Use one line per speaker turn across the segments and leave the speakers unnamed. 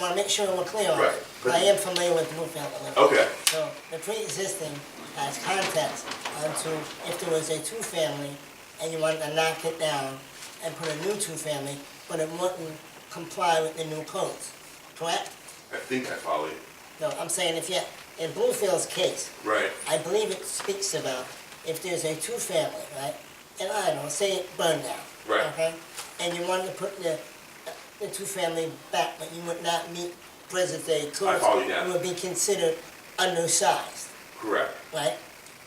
wanna make sure we're clear on it.
Right. Oh.
But I am familiar with Bluefield a little.
Okay.
So the pre-existing has context onto if there was a two-family and you wanted to knock it down and put a new two-family, but it wouldn't comply with the new codes, correct?
I think I follow you.
No, I'm saying if you, in Bluefield's case,
Right.
I believe it speaks about if there's a two-family, right? And I don't know, say it burned down.
Right.
Okay? And you wanted to put the, the two-family back, but you would not meet present day codes.
follow you now.
You would be considered undersized,
Correct.
right?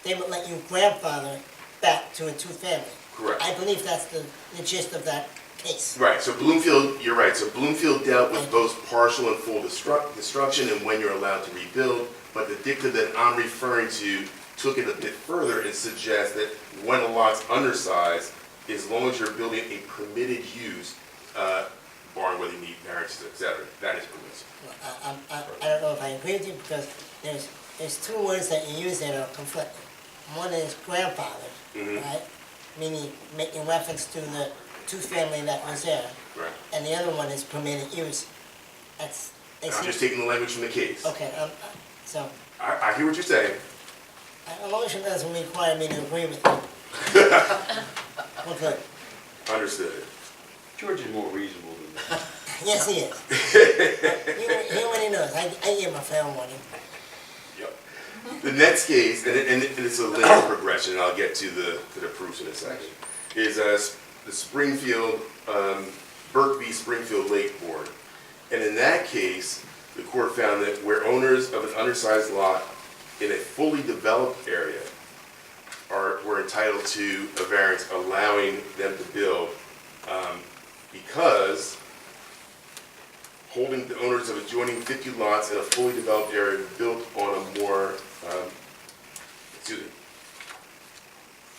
They would let you grandfather back to a two-family.
Correct.
I believe that's the, the gist of that case.
Right. So Bloomfield, you're right. So Bloomfield dealt with both partial and full destruct, destruction and when you're allowed to rebuild. But the dicta that I'm referring to took it a bit further and suggests that when a lot's undersized, as long as you're building a permitted use, uh, barring whether you need variances, et cetera, that is permissible.
I, I- I, I don't know if I agree with you because there's, there's two words that you use that are conflicting. One is grandfather,
Mm-hmm.
right? Meaning making reference to the two family that was there.
Right.
And the other one is permitted use. That's, they
I'm just
seem,
taking the language from the case.
okay, um, uh, so,
I, I hear what you're saying.
a a motion doesn't require me to agree with you. Well, good,
Understood.
George is more reasonable than that.
yes, he is. He, he already knows, I, I give him a fair warning.
Yep. The next case, and, it, and, it- and it's a linear progression, and I'll get to the, to the proofs in a second, is uh, s- the Springfield, um, Burke v. Springfield Lake Board. And in that case, the court found that where owners of an undersized lot in a fully developed area are, were entitled to a variance allowing them to build, um, because holding the owners of adjoining 50 lots in a fully developed area built on a more, um, excuse me,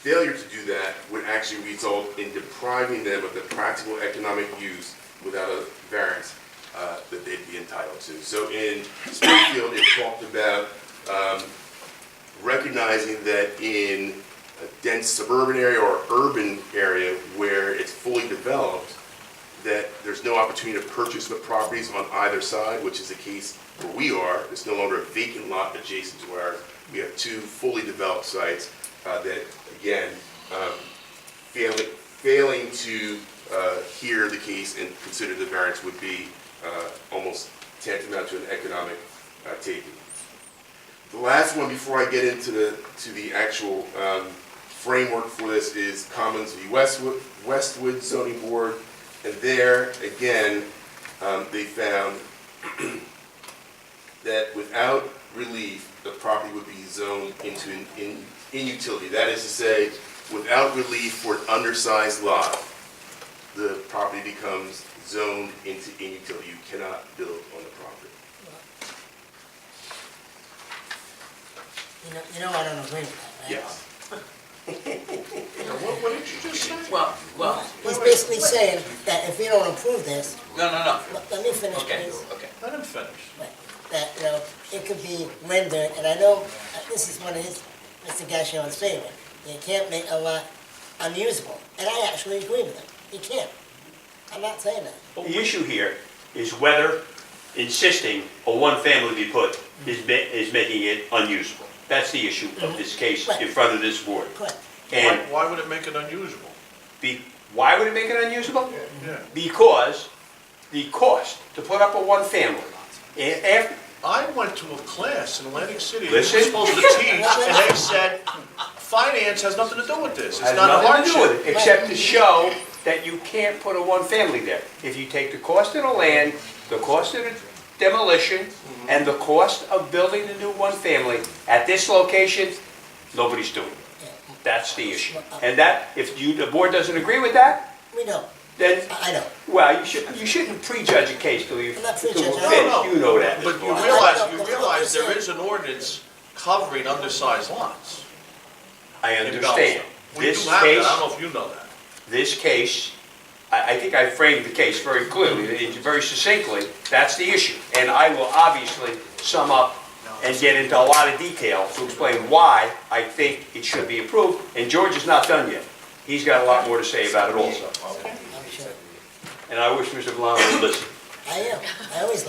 failure to do that would actually result in depriving them of the practical economic use without a variance uh, that they'd be entitled to. So in Springfield, it talked about um, recognizing that in a dense suburban area or urban area where it's fully developed, that there's no opportunity to purchase the properties on either side, which is the case where we are. It's no longer a vacant lot adjacent to ours. We have two fully developed sites uh, that, again, um, failing, failing to uh, hear the case and consider the variance would be uh, almost tantamount to an economic uh, taking. The last one, before I get into the, to the actual um, framework for this, is Commons v. Westwood, Westwood zoning board. And there, again, um, they found that without relief, the property would be zoned into an in- inutility. That is to say, without relief for an undersized lot, the property becomes zoned into inutility. You cannot build on the property.
You know, you know I don't agree with that, right?
Yes.
What, what did you just say?
Well, well,
He's basically saying that if we don't approve this,
no, no, no.
let let me finish,
Okay,
please.
okay.
Let him finish.
Right. That, you know, it could be rendered, and I know uh, this is one of his, Mr. Gashion's favorite. You can't make a lot unusable, and I actually agree with him. You can't. I'm not saying that.
The issue here is whether insisting a one-family be put is, ma- is making it unusable. That's the issue of this case in front of this board.
Correct.
Why,
And
why would it make it unusual?
be, why would it make it unusable?
Yeah.
Because the cost to put up a one-family, and after,
I went to a class in Atlantic City, they were
Listen.
supposed to teach, and they said, finance has nothing to do with this, it's
has
not a
nothing to do
hardship.
with it, except to show that you can't put a one-family there. If you take the cost of the land, the cost of the demolition,
Mm-hmm.
and the cost of building the new one-family at this location, nobody's doing it. That's the issue. And that, if you, the board doesn't agree with that,
We know.
then,
I I know.
well, you shouldn't, you shouldn't prejudge a case till you,
I'm not prejudging.
till we're
No,
no.
finished. you know that.
But you
Well,
realize,
that's
you
not-
realize there is an ordinance covering undersized lots.
I
in
understand.
Belleville. We do
This
have that, I
case
don't know if you know that.
this case, I, I think I framed the case very clearly, and very succinctly, that's the issue. And I will obviously sum up and get into a lot of detail to explain why I think it should be approved, and George is not done yet. He's got a lot more to say about it also,
I'm sure.
and I wish Mr. Valano would listen.
I am. I always